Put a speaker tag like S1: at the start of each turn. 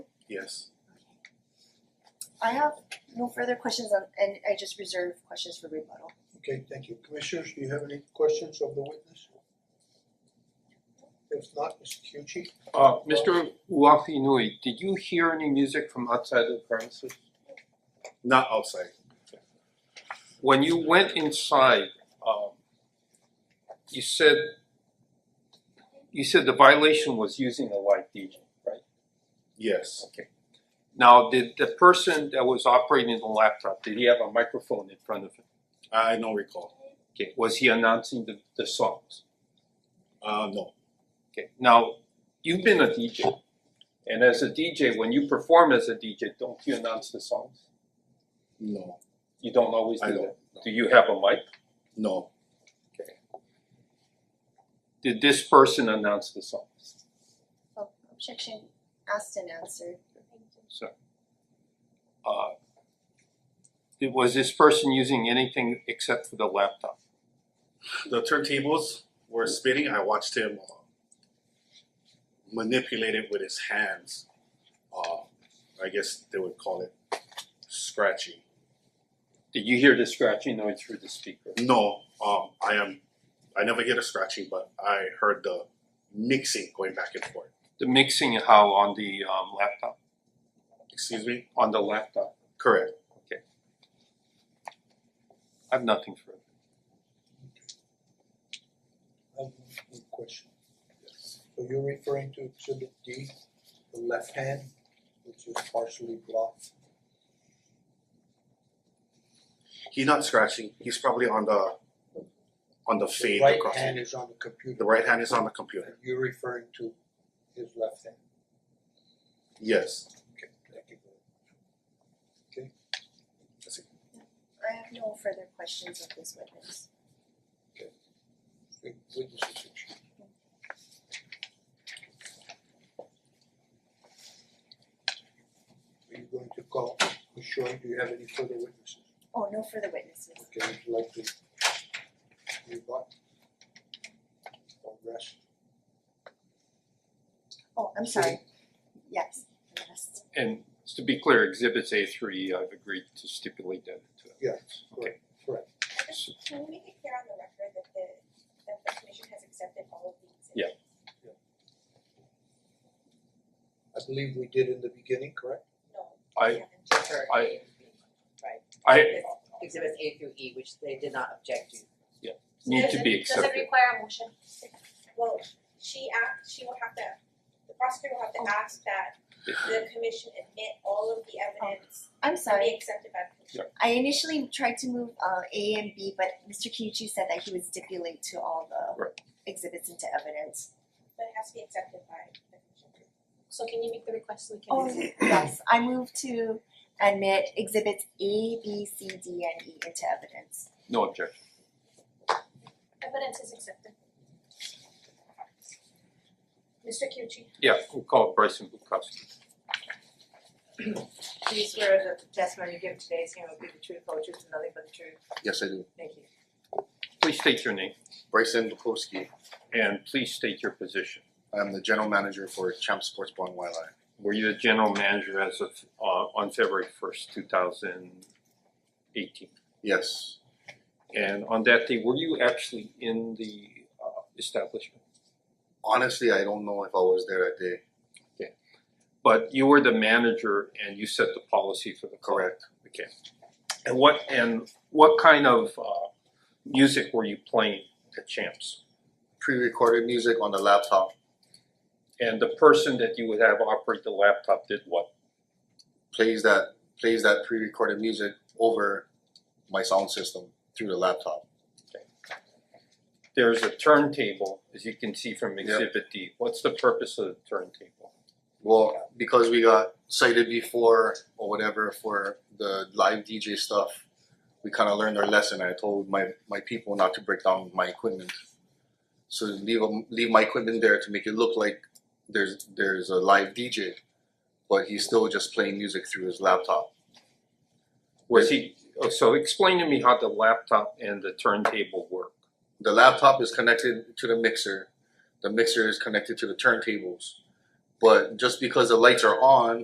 S1: Yes.
S2: I have no further questions on, and I just reserve questions for rebuttal.
S3: Okay, thank you. Commissioners, do you have any questions of the witness? If not, Mr. Kyuchi?
S4: Uh Mr. Uafinui, did you hear any music from outside the premises?
S1: Not outside.
S4: When you went inside, um you said you said the violation was using a live DJ, right?
S1: Yes.
S4: Okay. Now, did the person that was operating the laptop, did he have a microphone in front of him?
S1: I don't recall.
S4: Okay, was he announcing the the songs?
S1: Uh no.
S4: Okay, now, you've been a DJ. And as a DJ, when you perform as a DJ, don't you announce the songs?
S1: No.
S4: You don't always do
S1: I
S4: that?
S1: don't.
S4: Do you have a mic?
S1: No.
S4: Did this person announce the songs?
S2: Oh, objection asked and answered.
S4: So, uh, did- was this person using anything except for the laptop?
S1: The turntables were spinning. I watched him uh, manipulate it with his hands. Uh, I guess they would call it scratching.
S4: Did you hear the scratching noise through the speaker?
S1: No, um, I am. I never hear the scratching, but I heard the mixing going back and forth.
S4: The mixing how on the um, laptop?
S1: Excuse me.
S4: On the laptop?
S1: Correct.
S4: I have nothing for it.
S3: I have one question. So you're referring to exhibit D, the left hand, which is partially blocked.
S1: He's not scratching. He's probably on the on the
S3: The
S1: fade
S3: right
S1: across.
S3: hand
S1: it.
S3: is on the computer.
S1: The right hand is on the computer.
S3: And You're referring to his left hand.
S1: Yes.
S3: Okay, thank you.
S2: I have no further questions of this witness.
S3: Good Witness is excused. Are you going to call, Ms. Choi, do you have any further witnesses?
S2: Oh, no further witnesses.
S3: Okay, would you like to rebut? Or rest?
S2: Oh, I'm sorry. Yes, yes.
S4: And to be clear, exhibits A three, I've agreed to stipulate that to it.
S3: Yes,
S4: Okay.
S3: correct, correct.
S4: So-
S5: Can we make it clear on the record that the that the commission has accepted all of these?
S4: Yeah.
S3: I believe we did in the beginning, correct?
S5: No.
S4: I-
S5: we haven't.
S6: Sure.
S4: I-
S6: Right.
S4: I
S6: Exhibits A through E, which they did not object to.
S4: need to be
S7: Does it
S4: accepted.
S7: require a motion?
S5: Well, she asked, she will have to, the prosecutor will have to ask that the commission admit all of the evidence
S7: Oh,
S2: I'm
S5: to
S2: sorry.
S5: be accepted by the commission.
S2: I initially tried to move uh A and B, but Mister Kiuchi said that he would stipulate to all the
S4: Right.
S2: exhibits into evidence.
S5: But it has to be accepted by the commission.
S7: So can you make the request so we can?
S2: Oh, yes, I move to admit exhibits A, B, C, D, and E into evidence.
S4: No objection.
S7: Evidence is accepted. Mister Kyuchi,
S4: Yeah, we'll call Bryson Bukowski.
S6: Do you swear that the testimony you give today's hearing will be the truth, whole truth, and nothing but the truth?
S8: Yes, I do.
S6: Thank you.
S4: Please state your name
S8: Bryson Bukowski.
S4: and please state your position.
S8: I'm the general manager for Champ Sports Bar and Wildlife.
S4: Were you the general manager as of uh on February first, two thousand eighteen?
S8: Yes,
S4: And on that day, were you actually in the uh establishment?
S8: honestly, I don't know if I was there that day.
S4: But you were the manager and you set the policy for the club.
S8: Correct.
S4: Okay. And what and what kind of uh music were you playing at Champs?
S8: Pre-recorded music on the laptop,
S4: And the person that you would have operate the laptop did what?
S8: plays that plays that pre-recorded music over my sound system through the laptop.
S4: There's a turntable, as you can see from
S8: Yep.
S4: exhibit D. What's the purpose of the turntable?
S8: Well, because we got cited before or whatever for the live DJ stuff, we kind of learned our lesson. I told my my people not to break down my equipment, so leave 'em- leave my equipment there to make it look like there's there's a live DJ, but he's still just playing music through his laptop.
S4: Was he, oh, so explain to me how the laptop and the turntable work.
S8: The laptop is connected to the mixer, the mixer is connected to the turntables, but just because the lights are on